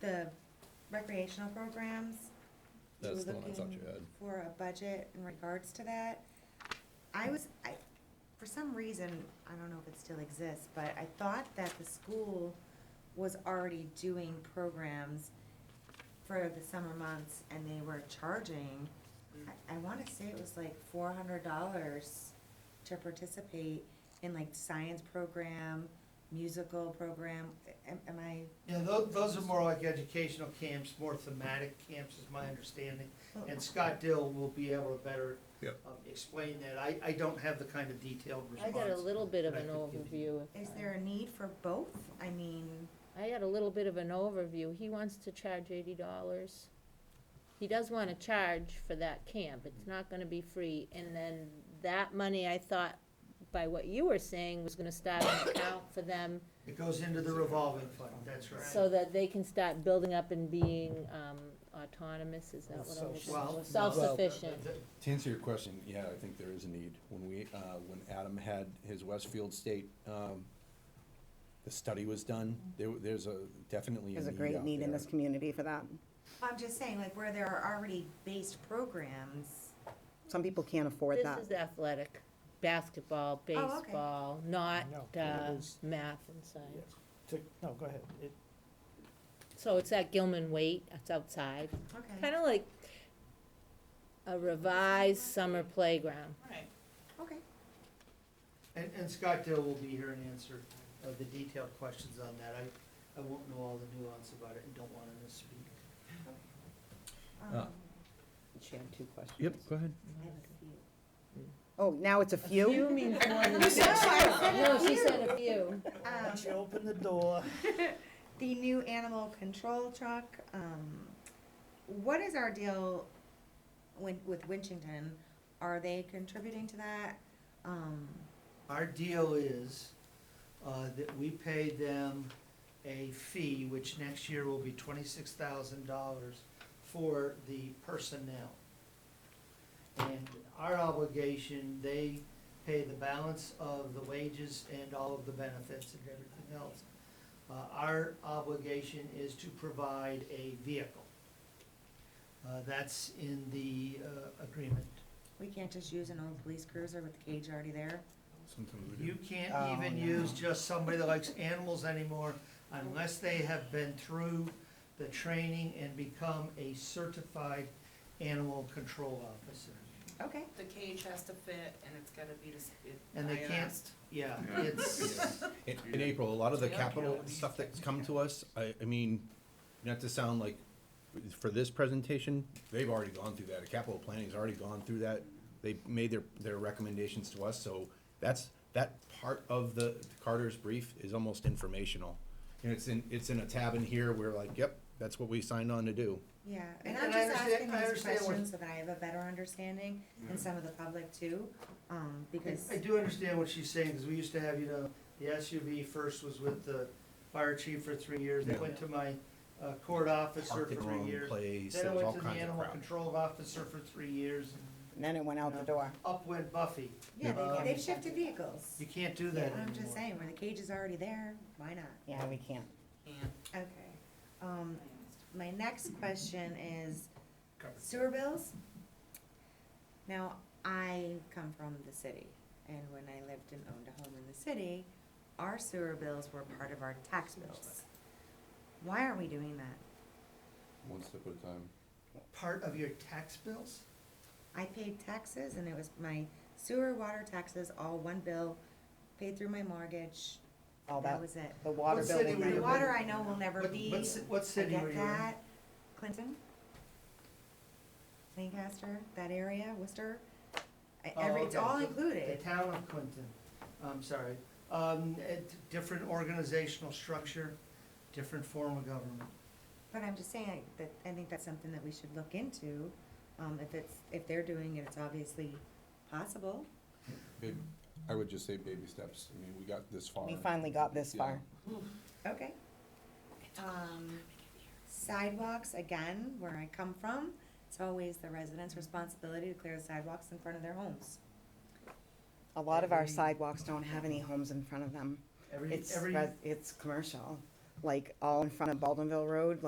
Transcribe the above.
the recreational programs. you That's were the one I thought you looking had. For a budget in regards to that. I was, I, for some reason, I don't know if it still exists, but I thought that the school was already doing programs for the summer months and they were charging, I, I wanna say it was like four hundred dollars to participate in like science program, musical program, am, am I? Yeah, those, those are more like educational camps, more thematic camps is my understanding. And Scott Dill will be able to better Yep. um, explain that. I, I don't have the kind of detailed I response. got a little bit of that I an could give you. overview. if Is I- there a need for both? I mean, I got a little bit of an overview. He wants to charge eighty dollars. He does wanna charge for that camp. It's not gonna be free. And then that money, I thought, by what you were saying, was gonna start an account for them It goes into the revolving fund, that's so right. that they can start building up and being, um, autonomous, is that what I'm Self- well, no. saying? Self-sufficient. To answer your question, yeah, I think there is a need. When we, uh, when Adam had his Westfield State, um, the study was done, there, there's a, definitely a need Mm-hmm. There's a great out need in there. this community for that. I'm just saying, like, where there are already based programs, Some people can't afford This that. is athletic, basketball, Oh, okay. baseball, not, No, it uh, is- math and science. No, go ahead. So it's at Gilman Waite, it's outside. okay, Kind of like a revised summer playground. Right. okay. And, and Scott Dill will be here and answer uh, the detailed questions on that. I, I won't know all the nuance about it and don't want to misspeak. Uh, Um, She had two questions. Yep, go ahead. Oh, now it's a few? means more than six. No, she said a few. Um, She opened the door. the new animal control truck, um, what is our deal with, with Winchington? Are they contributing to that? Um, Our deal is uh, that we pay them a fee, which next year will be twenty-six thousand dollars for the personnel. And our obligation, they pay the balance of the wages and all of the benefits and everything else. Uh, Our obligation is to provide a vehicle. Uh, That's in the uh, agreement. we can't just use an old police cruiser with the cage already there? Sometimes we do. You can't Oh, even no. use just somebody that likes animals anymore unless they have been through the training and become a certified animal control officer. Okay, The cage has to fit and it's gotta be this. it- And they can't- ironized. Yeah, it's, In, in April, a lot of the Yeah. capital stuff that's come to us, I, I mean, not to sound like, for this presentation, they've already gone through that, the capital planning's already gone through that. They made their, their recommendations to us, so that's, that part of the Carter's brief is almost informational. And it's in, it's in a tab in here, we're like, yep, that's what we signed on to do. yeah, and And- I'm and I just understand- asking I these understand what- questions so that I have a better understanding, Mm-hmm. and some of the public too, um, because, I do understand what she's saying, because we used to have, you know, the SUV first was with the fire chief for three years, then went to my uh, court officer Parked for in the three wrong years. place, Then I there was all went to the kinds of animal crap. control officer for three years, and And Then it went out the door. up went Buffy. yeah, Um, they, they've shifted vehicles. You can't do that anymore. I'm just saying, where the cage is already there, why not? Yeah, we can't. Can't. Okay, um, my next question is Covered. sewer bills. Now, I come from the city, and when I lived and owned a home in the city, our sewer bills were part of our tax bills. Why are we doing that? One step at a time. Part of your tax bills? I paid taxes, and it was my sewer, water taxes, all one bill, paid through my mortgage, All that that, was it. the water What bill. city will were The you never- in? water I know will never What- be, what ci- what I city were get you in? that. Clinton? Lancaster, that area, Worcester, I- Oh, every, it's okay. all The included. town of Clinton, I'm sorry, um, it, different organizational structure, different form of government. But I'm just saying that, I think that's something that we should look into, um, if it's, if they're doing it, it's obviously possible. Babe, I would just say baby steps, I mean, we got this far. We finally got this far. Okay. Um, sidewalks, again, where I come from, it's always the residents' responsibility to clear the sidewalks in front of their homes. A lot of our Every- sidewalks don't have any homes in front of them. Every, It's, every res- it's commercial, like all in front of Baldwinville Road,